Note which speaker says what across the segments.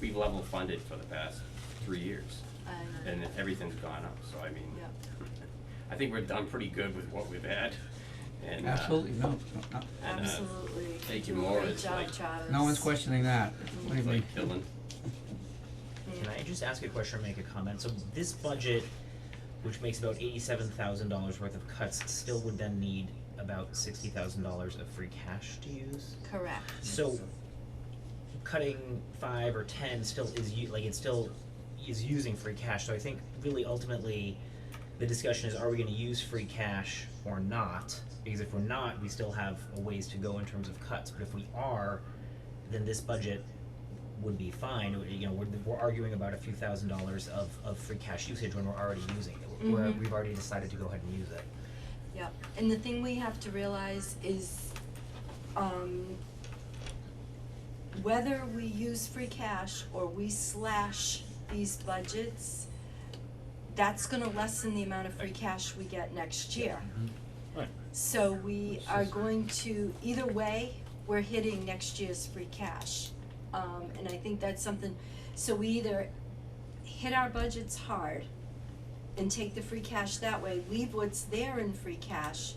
Speaker 1: we've level funded for the past three years.
Speaker 2: I know.
Speaker 1: And everything's gone up, so I mean,
Speaker 2: Yep.
Speaker 1: I think we've done pretty good with what we've had, and, uh,
Speaker 3: Absolutely, no, no,
Speaker 1: and, uh,
Speaker 2: Absolutely.
Speaker 1: Thank you more
Speaker 2: Great
Speaker 1: is
Speaker 2: job,
Speaker 1: like-
Speaker 2: Travis.
Speaker 3: no one's questioning that, believe me.
Speaker 1: Like Dylan,
Speaker 2: Yeah.
Speaker 4: Can I just ask a question or make a comment? So this budget, which makes about eighty-seven thousand dollars worth of cuts, still would then need about sixty thousand dollars of free cash to use?
Speaker 2: Correct.
Speaker 4: So cutting five or ten still is u- like it still is using free cash, so I think really ultimately the discussion is are we gonna use free cash or not? Because if we're not, we still have a ways to go in terms of cuts, but if we are, then this budget would be fine, It would- you know, we're we're arguing about a few thousand dollars of of free cash usage when we're already using it. We're-
Speaker 2: Mhm.
Speaker 4: we've already decided to go ahead and use it.
Speaker 2: Yep, and the thing we have to realize is, um, whether we use free cash or we slash these budgets, that's gonna lessen the amount of free cash we get next year.
Speaker 4: Right.
Speaker 2: So we are going to, either way, we're hitting next year's free cash. Um, and I think that's something, so we either hit our budgets hard and take the free cash that way, leave what's there in free cash,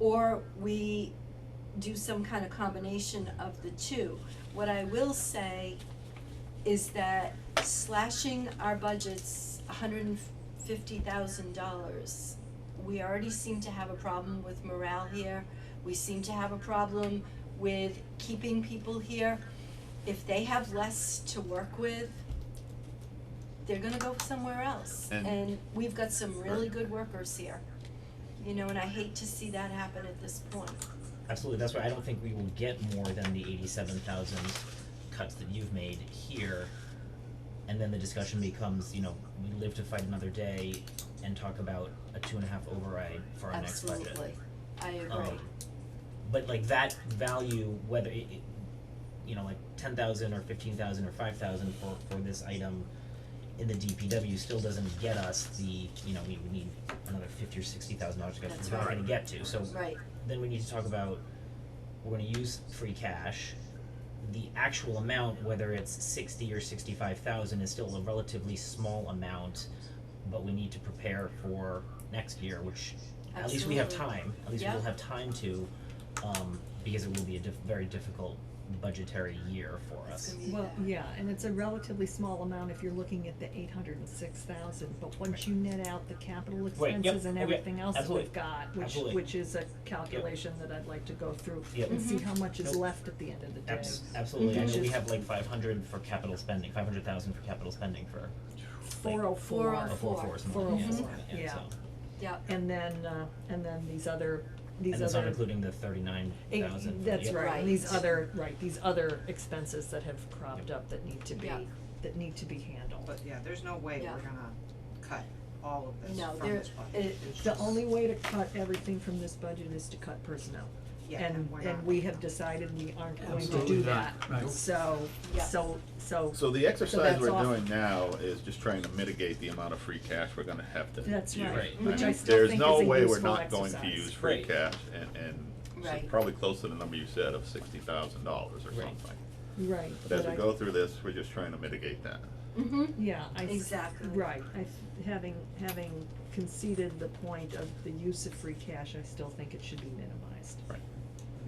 Speaker 2: or we do some kind of combination of the two. What I will say is that slashing our budgets hundred and fifty thousand dollars, we already seem to have a problem with morale here, we seem to have a problem with keeping people here. If they have less to work with, they're gonna go somewhere else,
Speaker 5: And-
Speaker 2: and we've got some really good workers here. You know, and I hate to see that happen at this point.
Speaker 4: Absolutely, that's why I don't think we will get more than the eighty-seven thousand cuts that you've made here. And then the discussion becomes, you know, we live to fight another day and talk about a two and a half override for our next budget.
Speaker 2: Absolutely, I agree.
Speaker 4: Um, but like that value, whether it, it- you know, like ten thousand or fifteen thousand or five thousand for, for this item in the DPW still doesn't get us the, you know, we would need another fifty or sixty thousand dollars to get,
Speaker 2: That's
Speaker 4: we're not
Speaker 2: right.
Speaker 4: gonna get to, so
Speaker 2: Right,
Speaker 4: then we need to talk about, we're gonna use free cash. The actual amount, whether it's sixty or sixty-five thousand, is still a relatively small amount, but we need to prepare for next year, which, at least we have
Speaker 2: Absolutely.
Speaker 4: time, at least we'll
Speaker 2: Yeah.
Speaker 4: have time to, um, because it will be a diff- very difficult budgetary year for
Speaker 2: it's
Speaker 4: us.
Speaker 2: gonna be
Speaker 6: Well,
Speaker 2: bad.
Speaker 6: yeah, and it's a relatively small amount if you're looking at the eight hundred and six thousand, but once you net out the capital
Speaker 4: Right, yep,
Speaker 6: expenses and
Speaker 4: okay,
Speaker 6: everything else that
Speaker 4: absolutely,
Speaker 6: we've got, which,
Speaker 4: absolutely.
Speaker 6: which is a calculation that I'd like to go through
Speaker 4: Yep.
Speaker 6: and see how much is
Speaker 4: Nope.
Speaker 6: left at the end of the day.
Speaker 4: Abs- absolutely, I know we
Speaker 6: Just-
Speaker 4: have like five hundred for capital spending, five hundred thousand for capital spending for, like,
Speaker 6: Four oh four.
Speaker 2: 404.
Speaker 4: four four or something like that, yeah,
Speaker 6: 404,
Speaker 4: something like that,
Speaker 6: yeah.
Speaker 4: so.
Speaker 2: Yep.
Speaker 6: And then, uh, and then these other, these
Speaker 4: And that's not
Speaker 6: other,
Speaker 4: including the thirty-nine
Speaker 6: eh,
Speaker 4: thousand.
Speaker 6: that's right,
Speaker 2: Right.
Speaker 6: and these other, right, these other expenses that have cropped
Speaker 4: Yep.
Speaker 6: up that need to be,
Speaker 2: Yeah.
Speaker 6: that need to be handled.
Speaker 7: But yeah, there's no way
Speaker 2: Yeah.
Speaker 7: we're gonna cut all of this
Speaker 2: No,
Speaker 7: from
Speaker 2: there-
Speaker 7: this budget.
Speaker 2: it-
Speaker 7: It's
Speaker 6: The
Speaker 7: just-
Speaker 6: only way to cut everything from this budget is to cut personnel.
Speaker 7: Yeah,
Speaker 6: And,
Speaker 7: we're
Speaker 6: and
Speaker 7: not.
Speaker 6: we have decided we aren't going to
Speaker 3: Absolutely
Speaker 6: do that,
Speaker 3: not, right.
Speaker 6: so,
Speaker 2: Yeah.
Speaker 6: so, so.
Speaker 5: So the exercise
Speaker 6: that's
Speaker 5: we're
Speaker 6: off.
Speaker 5: doing now is just trying to mitigate the amount of free cash we're gonna have to use.
Speaker 6: That's right,
Speaker 4: Right.
Speaker 6: which I
Speaker 5: mean,
Speaker 6: still think is a
Speaker 5: There's no way we're
Speaker 6: useful
Speaker 5: not going to
Speaker 6: exercise.
Speaker 5: use free
Speaker 4: Right.
Speaker 5: cash and, and so
Speaker 2: Right.
Speaker 5: probably close to the number you said of sixty thousand dollars or
Speaker 4: Right.
Speaker 5: something.
Speaker 6: Right,
Speaker 5: But
Speaker 6: but
Speaker 5: as
Speaker 6: I,
Speaker 5: we go through this, we're just trying to mitigate that.
Speaker 2: Mm-hmm,
Speaker 6: yeah, I. th-
Speaker 2: Exactly.
Speaker 6: Right, I, th- having, having conceded the point of the use of free cash, I still think it should be minimized.
Speaker 5: Right.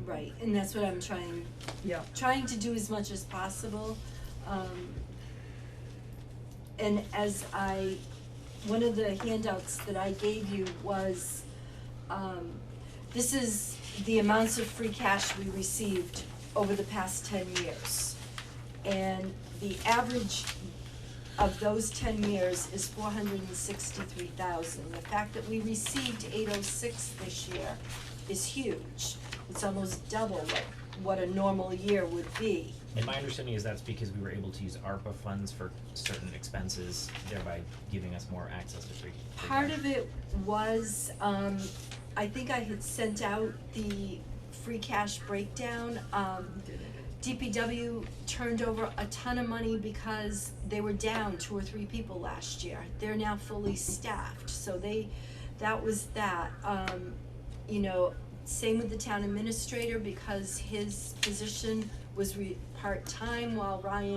Speaker 2: right, and that's what I'm trying,
Speaker 6: Yeah,
Speaker 2: trying to do as much as possible. Um, and as I, one of the handouts that I gave you was, um, this is the amounts of free cash we received over the past ten years. And the average of those ten years is four hundred and sixty-three thousand. The fact that we received eight oh six this year is huge. It's almost double what, what a normal year would be.
Speaker 4: And my understanding is that's because we were able to use ARPA funds for certain expenses, thereby giving us more access to free. free
Speaker 2: Part
Speaker 4: cash.
Speaker 2: of it was, um, I think I had sent out the free cash breakdown, um, DPW turned over a ton of money because they were down two or three people last year. They're now fully staffed, so they, that was that. Um, you know, same with the town administrator because his position was re- part-time while Ryan